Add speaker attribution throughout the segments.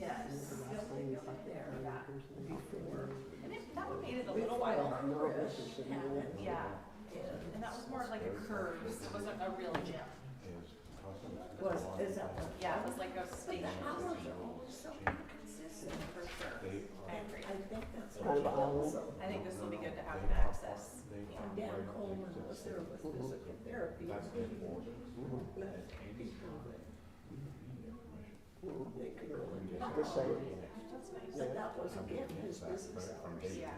Speaker 1: Yes, the only thing up there back before, and it, that would made it a little
Speaker 2: Well,
Speaker 1: while
Speaker 2: I'm
Speaker 1: longer.
Speaker 2: nervous, it's in the way.
Speaker 1: Yeah, and that was more of like a curve, so it wasn't a real gym.
Speaker 2: Was, is that what?
Speaker 1: Yeah, it was like a
Speaker 2: But the
Speaker 1: station
Speaker 2: hours are always so inconsistent.
Speaker 1: for sure. I agree.
Speaker 2: I think that's
Speaker 3: Kind of
Speaker 2: what also.
Speaker 1: I think this will be good to have an access. Yeah.
Speaker 2: Dan Coleman was there with physical therapy. and he left people that They could really do.
Speaker 3: The same.
Speaker 1: That's nice.
Speaker 2: But that was again his business hours,
Speaker 1: Yeah,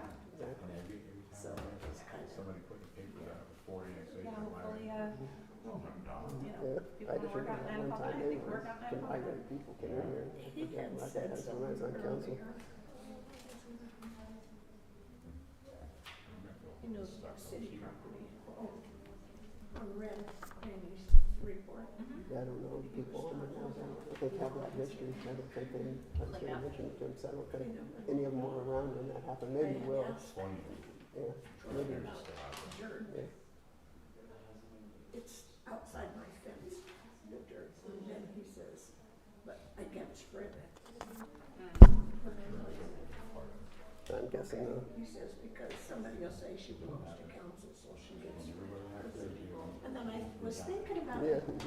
Speaker 2: so it was kind of.
Speaker 1: yeah, hopefully, uh, you know, people
Speaker 3: I
Speaker 1: wanna
Speaker 3: just
Speaker 1: work out
Speaker 3: remember
Speaker 1: nine o'clock,
Speaker 3: one time
Speaker 1: I
Speaker 3: they
Speaker 1: think work
Speaker 3: were,
Speaker 1: out nine
Speaker 3: some
Speaker 1: o'clock.
Speaker 3: migrant people came in here.
Speaker 2: He had
Speaker 3: My dad
Speaker 2: said
Speaker 3: had some
Speaker 2: something
Speaker 3: lands on council.
Speaker 2: earlier. You know, the city property, oh, on rent, and he's report.
Speaker 1: Mm-hmm.
Speaker 3: Yeah, I don't know, people on the council, if they have that history, I don't think they, I'm sure they mentioned it to us, I don't think any of them were around when that happened, maybe
Speaker 2: And
Speaker 3: will,
Speaker 2: that's
Speaker 3: yeah, maybe.
Speaker 2: the dirt.
Speaker 3: Yeah.
Speaker 2: It's outside my fence, the dirt, and
Speaker 1: Mm-hmm.
Speaker 2: then he says, but I can't spread it. But I like it.
Speaker 3: I'm guessing uh, the
Speaker 2: He says, because somebody will say she belongs to council, so she gets her thing." And then I was thinking about
Speaker 3: Yeah,
Speaker 2: it, and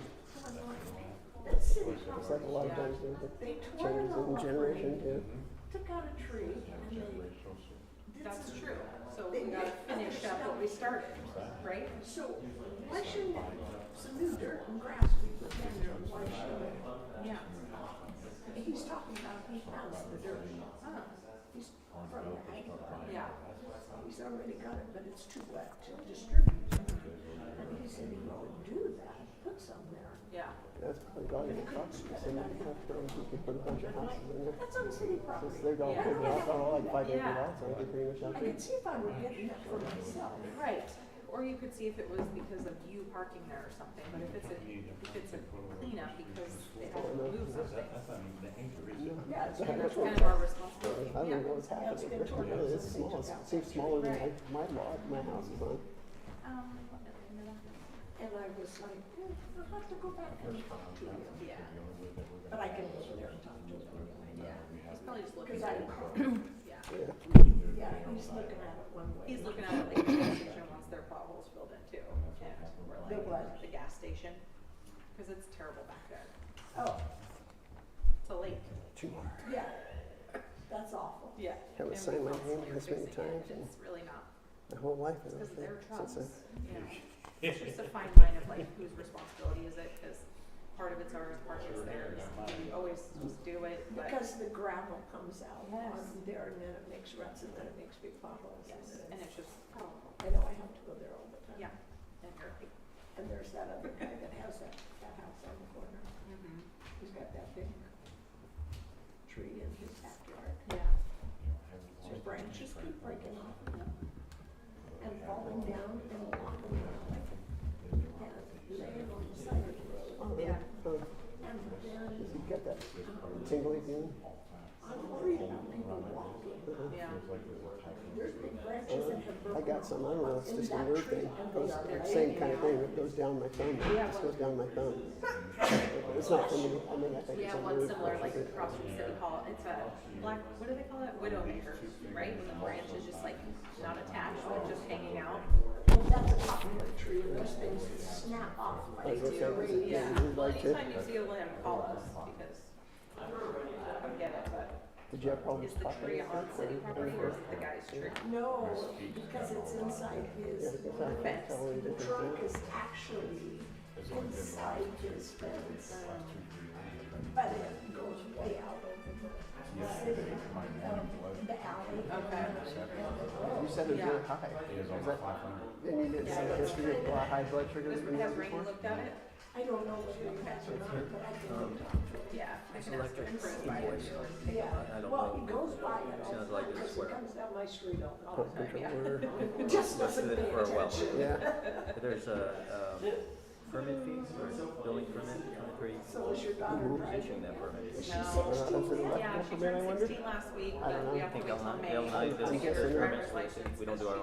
Speaker 2: I'm like, that city
Speaker 3: it's
Speaker 2: council,
Speaker 3: like a lot of times there's a
Speaker 2: they tore it
Speaker 3: changes
Speaker 2: all
Speaker 3: in
Speaker 2: up,
Speaker 3: generation,
Speaker 2: and
Speaker 3: yeah.
Speaker 2: took out a tree, and they did
Speaker 1: That's
Speaker 2: some
Speaker 1: true, so we gotta finish up what we started, right?
Speaker 2: So why shouldn't some new dirt and grass be put in there? Why should
Speaker 1: Yeah.
Speaker 2: it? He's talking about he has the dirt.
Speaker 1: Huh.
Speaker 2: He's from the ag farm.
Speaker 1: Yeah,
Speaker 2: He's already got it, but it's too wet to distribute. And he said he would do that, put some there.
Speaker 1: yeah.
Speaker 3: That's probably valuable property, so many hospitals, you could put a bunch of houses in there.
Speaker 2: That's on city
Speaker 3: Since
Speaker 2: property.
Speaker 3: they got
Speaker 1: Yeah.
Speaker 3: figured out, I don't know, like five acre
Speaker 1: Yeah.
Speaker 3: lots, I think pretty much
Speaker 2: I
Speaker 3: have to.
Speaker 2: could see if I were getting that for myself.
Speaker 1: Right, or you could see if it was because of you parking there or something, but if it's a, if it's a cleanup because they have to remove something,
Speaker 2: Yeah, it's been
Speaker 1: that's
Speaker 2: torn
Speaker 1: kind of our responsibility,
Speaker 3: I don't
Speaker 1: yeah.
Speaker 3: know what's happened, it really is small, it seems smaller than my, my lot, my house is on.
Speaker 1: Um,
Speaker 2: And I was like, "Hmm, I'll have to go back and talk to him.
Speaker 1: yeah,
Speaker 2: But I can go there and talk to him anyway.
Speaker 1: yeah, he's probably just looking,
Speaker 2: Because I,
Speaker 1: yeah,
Speaker 2: yeah, he's looking at it one way.
Speaker 1: he's looking at it like the gas station wants their potholes filled in too, and we're
Speaker 2: The
Speaker 1: like,
Speaker 2: what?
Speaker 1: the gas station, cause it's terrible back there,
Speaker 2: Oh,
Speaker 1: it's a lake,
Speaker 3: Too hard.
Speaker 2: yeah, that's awful.
Speaker 1: yeah.
Speaker 3: I would
Speaker 1: and
Speaker 3: sign
Speaker 1: we
Speaker 3: my
Speaker 1: constantly
Speaker 3: name
Speaker 1: are
Speaker 3: this many
Speaker 1: fixing it,
Speaker 3: times
Speaker 1: and
Speaker 3: and
Speaker 1: It's really not
Speaker 3: my whole life,
Speaker 1: It's
Speaker 3: I don't
Speaker 1: because of
Speaker 3: think,
Speaker 1: their
Speaker 3: since
Speaker 1: trucks,
Speaker 3: I.
Speaker 1: you know. It's just a fine line of like whose responsibility is it, because part of it's ours, part of it's theirs, we always just do it, but,
Speaker 2: Because the gravel comes out
Speaker 1: Yes.
Speaker 2: on there and then it makes ruts and then it makes big potholes.
Speaker 1: yes,
Speaker 2: and
Speaker 1: and
Speaker 2: then-
Speaker 1: it's just,
Speaker 2: I know, I have to go there all the time.
Speaker 1: yeah, and you're like,
Speaker 2: And there's that other guy that has that, that house on the corner.
Speaker 1: mhm,
Speaker 2: He's got that big tree in his backyard.
Speaker 1: yeah,
Speaker 2: So branches keep breaking off of them and falling down and walking around. And laying on the side of the road.
Speaker 3: Oh,
Speaker 1: Yeah.
Speaker 3: oh,
Speaker 2: And then
Speaker 3: You get that tingly feeling?
Speaker 2: I'm worried about people walking.
Speaker 1: yeah,
Speaker 2: There's big branches that have
Speaker 3: I
Speaker 2: broken
Speaker 3: got some, I don't know, it's
Speaker 2: In
Speaker 3: just a
Speaker 2: that
Speaker 3: weird
Speaker 2: tree,
Speaker 3: thing,
Speaker 2: and
Speaker 3: goes,
Speaker 2: they are
Speaker 3: same
Speaker 2: laying
Speaker 3: kind of thing, it goes down my thumb, it just goes down my thumb. It's not for me, I mean, I think
Speaker 1: yeah,
Speaker 3: it's a
Speaker 1: one
Speaker 3: weird.
Speaker 1: similar like across from City Hall, it's a black, what do they call it, widowmaker, right, when the branch is just like not attached, but just hanging out,
Speaker 2: Well, that's a popular tree, and there's things that snap off
Speaker 3: I
Speaker 2: like
Speaker 3: was gonna say,
Speaker 2: deer.
Speaker 3: is it-
Speaker 1: yeah.
Speaker 3: is it
Speaker 1: Well,
Speaker 3: like
Speaker 1: anytime
Speaker 3: it?
Speaker 1: you see a limb, call us, because I don't get it, but.
Speaker 3: Did you have problems
Speaker 1: Is the tree
Speaker 3: popping?
Speaker 1: on city property or is it the guy's tree?
Speaker 2: No, because it's inside
Speaker 3: Yeah,
Speaker 2: his
Speaker 3: it's not
Speaker 2: fence.
Speaker 3: totally different
Speaker 2: The trunk
Speaker 3: thing.
Speaker 2: is actually inside his fence. But it goes way out over the city, um, the alley.
Speaker 1: Okay.
Speaker 3: You said it was
Speaker 1: Yeah.
Speaker 3: really high. Is that, and you didn't say history of blood, high blood sugar
Speaker 1: Has
Speaker 3: that's been there
Speaker 1: Rainy
Speaker 3: before?
Speaker 1: looked at it?
Speaker 2: I don't know whether you have or not, but I can go
Speaker 4: Um,
Speaker 2: talk to him.
Speaker 1: Yeah. I can ask her if it's by it.
Speaker 2: Yeah, well, he goes by it all the
Speaker 4: Sounds like
Speaker 2: time,
Speaker 4: it's
Speaker 2: 'cause he
Speaker 4: square.
Speaker 2: comes down my street all the
Speaker 3: Pump
Speaker 2: time.
Speaker 3: controller,
Speaker 2: Just doesn't
Speaker 4: Listed
Speaker 2: pay
Speaker 4: it for a while.
Speaker 2: attention.
Speaker 3: yeah,
Speaker 4: There's a, um, permit fees, or building permit, permit where you
Speaker 2: So is your daughter
Speaker 4: issuing
Speaker 2: driving?
Speaker 4: that permit.
Speaker 2: Is she
Speaker 1: No.
Speaker 2: sixteen yet?
Speaker 1: Yeah, she
Speaker 3: Compliment, I
Speaker 1: turned
Speaker 3: wonder?
Speaker 1: sixteen last week,
Speaker 3: I don't
Speaker 1: but we
Speaker 3: know.
Speaker 1: have to
Speaker 4: I think
Speaker 1: wait till
Speaker 4: L nine,
Speaker 1: May.
Speaker 4: L nine
Speaker 1: to
Speaker 4: doesn't
Speaker 1: get
Speaker 4: care
Speaker 1: her
Speaker 3: they're-
Speaker 1: driver's
Speaker 4: permits, so
Speaker 1: license
Speaker 4: we don't do
Speaker 1: because
Speaker 4: our